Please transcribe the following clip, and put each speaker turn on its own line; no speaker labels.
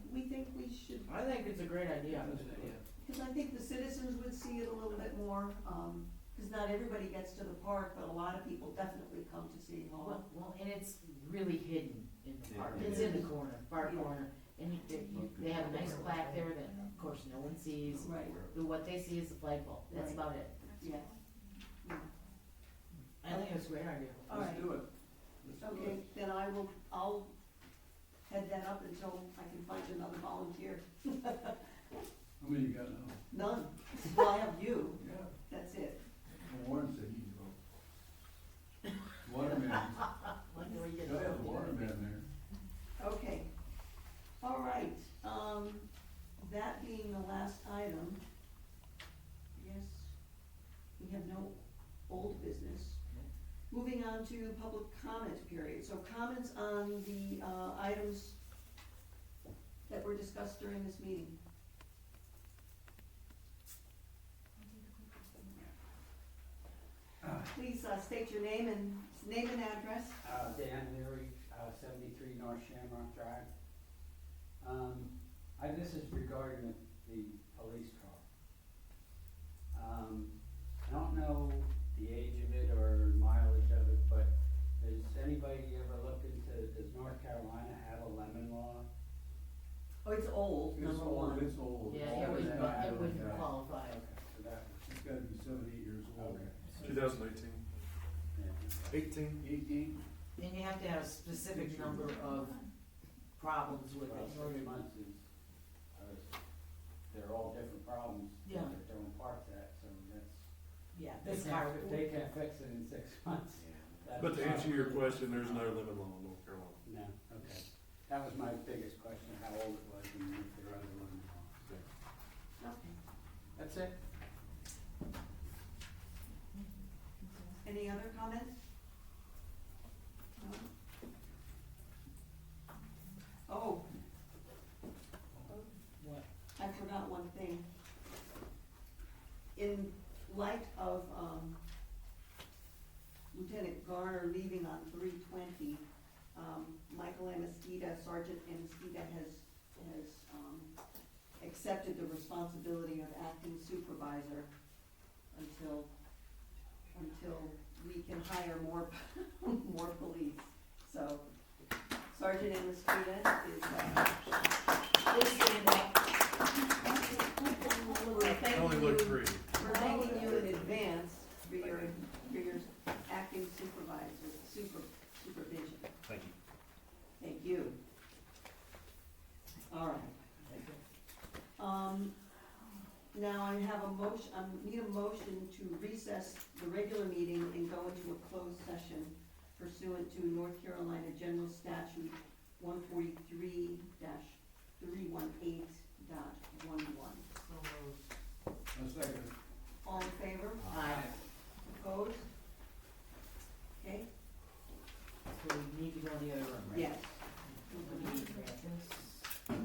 I think it's a great idea.
Because I think the citizens would see it a little bit more, um, because not everybody gets to the park, but a lot of people definitely come to City Hall.
Well, well, and it's really hidden in the park,
Yeah.
it's in the corner, far
Yeah.
corner, and you- they, you- they have a nice plaque there that, of course, no one sees.
Right,
The- What they see is the flagpole, that's
Right.
about it.
yeah.
I think it's a great idea.
All right.
do it.
Okay, then I will, I'll head that up until I can find another volunteer.
How many you got now?
None, well, I have you,
Yeah.
that's it.
Warren said he's about. Waterman, gotta
Wonder where you get
have a
that.
waterman
Okay, all right, um, that being the last item, yes, we have no old business. Moving on to public comment period, so comments on the, uh, items that were discussed during this meeting. Please, uh, state your name and, name and address.
Uh, Dan Leary, uh, seventy-three North Shamrock Drive. Um, I, this is regarding the, the police car. Um, I don't know the age of it or mileage of it, but has anybody ever looked into, does North Carolina have a lemon law?
Oh, it's old,
there. It's
number
old,
one.
it's old.
Yeah,
All
it
of
wouldn't,
that.
it wouldn't qualify.
Okay, so that was,
It's gotta be seven, eight years old.
Okay.
2018.
yeah.
18.
Eighteen?
And you have to have a specific number of problems with
Well,
it in order to-
six months is, I was, they're all different problems.
Yeah.
They're different parts of that, so that's.
yeah,
They
this car.
can't, they can't fix it in six months. That's
But to answer your
probably-
question, there's no limit law in North Carolina.
No, okay. That was my biggest question, how old it was and if there was one.
Okay.
That's it?
Any other comments? No? Oh,
What?
I forgot one thing. In light of um, Lieutenant Garner leaving on three twenty, um, Michael Amistida, Sergeant Amistida has, has um, accepted the responsibility of acting supervisor until, until we can hire more, more police. So Sergeant Amistida is, uh,
This is that-
we're
I only
thanking you,
looked three.
we're thanking you in advance for your, for your acting supervisor, super, supervision.
Thank you.
Thank you. All right. Um, now I have a motion, I need a motion to recess the regular meeting and go into a closed session pursuant to North Carolina General Statute one forty-three three one eight
so,
A second.
All in favor?
Aye.
Opposed?